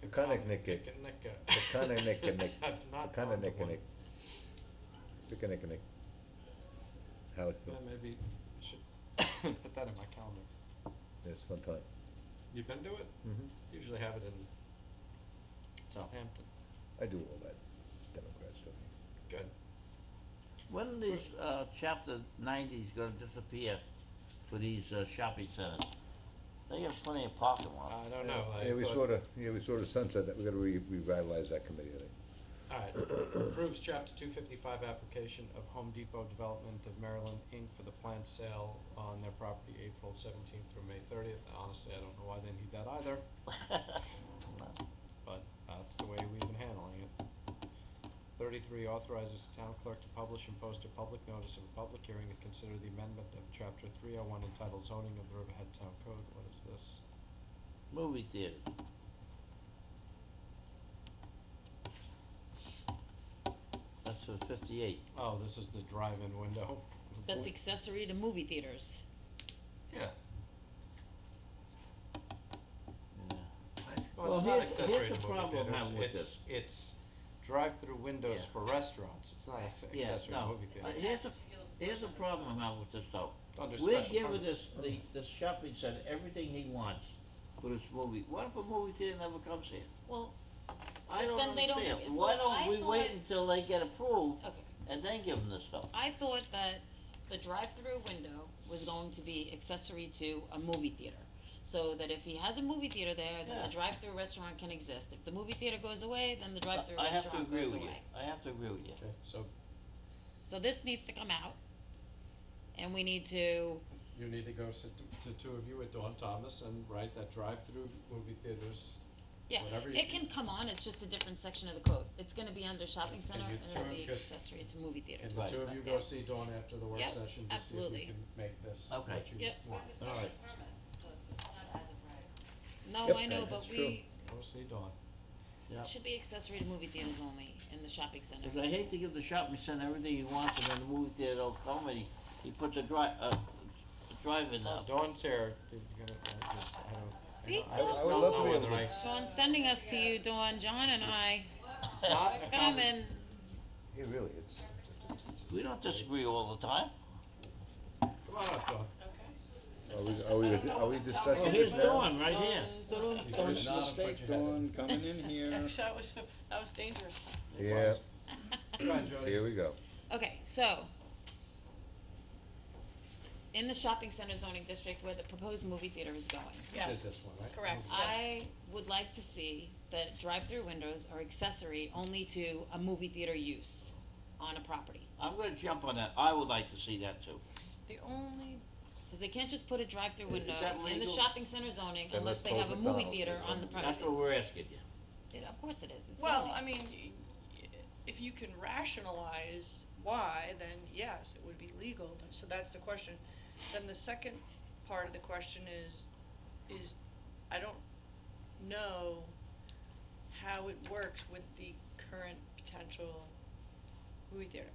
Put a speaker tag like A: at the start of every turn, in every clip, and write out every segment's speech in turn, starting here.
A: Pekaniknikkik. Pekaniknikkinik.
B: I've not gone to one.
A: Pekaniknik. Pekaniknik. How it's,
B: Yeah, maybe I should put that in my calendar.
A: it's fun time.
B: You've been to it?
A: Mhm.
B: Usually have it in Southampton.
A: I do all that Democrat stuff.
B: Good.
C: When are these, uh, chapter ninety's gonna disappear for these, uh, shopping centers? They got plenty of parking lot.
B: I don't know. I
A: Yeah, we
B: thought-
A: sorta, yeah, we sorta sunset that, we gotta re- revitalize that committee, I think.
B: All right. Approves chapter two fifty-five application of Home Depot Development of Maryland Inc. for the planned sale on their property April seventeenth through May thirtieth. Honestly, I don't know why they need that either, but that's the way we've been handling it. Thirty-three authorizes the town clerk to publish and post a public notice of a public hearing to consider the amendment of chapter three oh one entitled zoning of the Riverhead Town Code. What is this?
C: Movie theaters. That's for fifty-eight.
B: Oh, this is the drive-in window.
D: That's accessory to movie theaters.
B: Yeah.
C: Yeah.
B: Well, it's
C: Well,
B: not
C: here's-
B: accessory
C: here's the
B: to movie
C: problem I'm
B: theaters,
C: having with
B: it's,
C: this.
B: it's drive-through windows
C: Yeah.
B: for restaurants, it's not a s-
C: Yeah,
B: accessory
C: no.
B: movie
C: Uh,
B: theater.
C: Here's the, here's the problem I'm having with this though.
B: Under
C: Uh, We're
B: special
C: giving
B: permits.
C: this, the, this shopping center everything he wants for this movie. What if a movie theater never comes here?
D: Well,
C: I
D: But
C: don't
D: then they don't
C: understand.
D: get-
C: Why
D: well, I
C: don't we wait
D: thought-
C: until they get approved
D: okay.
C: and then give them the stuff?
D: I thought that the drive-through window was going to be accessory to a movie theater. So that if he has a movie theater there, then
C: Yeah.
D: the drive-through restaurant can exist. If the movie theater goes away, then the drive-through
C: I have to
D: restaurant
C: agree
D: goes away.
C: with you. I have to agree with you.
B: Okay, so
D: So this needs to come out. And we need to,
B: you need to go sit t- the two of you with Dawn Thomas and write that drive-through movie theaters,
D: yeah,
B: Whatever you-
D: it can come on, it's just a different section of the code. It's gonna be under shopping center
B: you
D: and it'll
B: turn-
D: be
B: just-
D: accessory to movie
B: and
D: theaters.
B: the
C: Right.
B: two of you go
D: Yeah.
B: see Dawn after the work
D: Yep,
B: session to see if
D: absolutely.
B: we can make this what
C: Okay.
B: you
D: Yep.
B: want.
E: It's a
C: All
E: special
C: right.
E: permit, so it's it's not as of
D: No,
E: right.
A: Yep.
D: I know, but
A: That's true.
D: we,
B: Go see Dawn.
C: Yeah.
D: it should be accessory to movie theaters only in the shopping center.
C: Because I hate to give the shopping center everything he wants and then the movie theater don't come and he, he puts a dri- uh, a drive in
B: Well,
C: now.
B: Dawn's here, Did you gonna- I just, I don't,
D: Speak
B: I don't, I just
A: up. I
B: don't
A: would love
B: know
A: to be
B: whether
A: able
B: I,
A: to-
B: it's
D: Dawn, sending us to you, Dawn, John and I,
B: not a
D: come
B: conversation.
D: and,
A: Yeah, really, it's,
C: We don't disagree all the time.
B: Come on up, Dawn.
A: are we, are we, are we
C: Well,
A: discussing
C: here's
A: this now?
C: Dawn right here.
B: You should
F: First
B: not have put
F: mistake,
B: your head in.
F: Dawn, coming in here.
E: That was, that was dangerous.
A: Yeah,
B: Come on, Jody.
A: here we go.
D: okay, so. In the shopping center zoning district where the proposed movie theater is going.
B: Is this one, right?
E: Correct.
D: I would like to see that drive-through windows are accessory only to a movie theater use on a property.
C: I'm gonna jump on that. I would like to see that too.
E: The only,
D: Cause they can't just put a drive-through
C: Is
D: window
C: that
D: in the
C: legal?
D: shopping center zoning
A: Then
D: unless
A: let's
D: they
A: close
D: have a movie
A: McDonald's
D: theater
A: as
D: on the
A: well.
D: premises.
C: That's what we're asking you.
D: It- Of course it is, it's zoning.
E: well, I mean, y- y- if you can rationalize why, then yes, it would be legal, so that's the question. Then the second part of the question is, is, I don't know how it works with the current potential movie theater,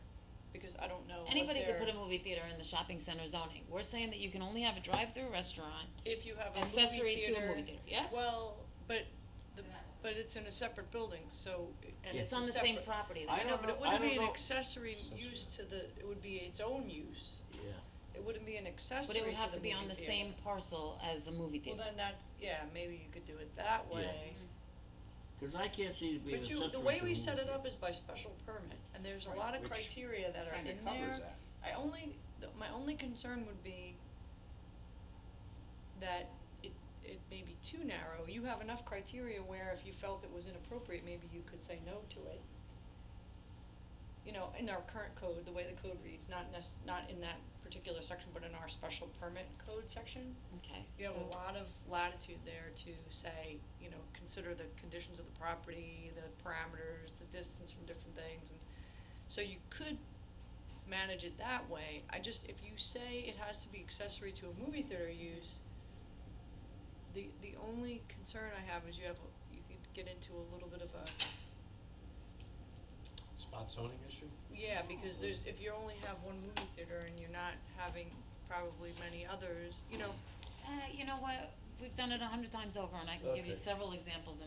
E: because I don't know what
D: Anybody could
E: their-
D: put a movie theater in the shopping center zoning. We're saying that you can only have a drive-through restaurant
E: if you have a movie theater.
D: accessory to a movie theater, yeah?
E: Well, but the, but it's in a separate building, so, and
D: It's
E: it's a
D: on the same
E: separate-
D: property,
C: I
D: though.
E: I know,
C: don't
E: but it
C: know- I
E: wouldn't be
C: don't
E: an
C: know.
E: accessory use to the, it would be its own use.
C: Yeah.
E: It wouldn't be an accessory
D: but
E: to the
D: it would have to be
E: movie
D: on the
E: theater.
D: same parcel as a movie
E: Well,
D: theater.
E: then that, yeah, maybe you could do it that
C: Yeah. Mm-hmm.
E: way.
C: Cause I can't see it being
E: But you,
C: accessory
E: the way
C: to
E: we
C: movie
E: set it
C: theater.
E: up is by special permit, and there's a lot of
F: Which
E: criteria that are in
D: kinda
E: there.
F: Covers that.
E: I only, th- my only concern would be that it, it may be too narrow. You have enough criteria where if you felt it was inappropriate, maybe you could say no to it. You know, in our current code, the way the code reads, not nec- not in that particular section, but in our special permit code section,
D: Okay,
E: you have a
D: so,
E: lot of latitude there to say, you know, consider the conditions of the property, the parameters, the distance from different things, and so you could manage it that way. I just, if you say it has to be accessory to a movie theater use, the, the only concern I have is you have, a- you could get into a little bit of a,
B: Spot zoning issue?
E: yeah, because there's, if you only have one movie theater and you're not having probably many others, you know,
D: uh, you know what, we've done it a hundred times over, and I can give
A: Okay.
D: you several examples in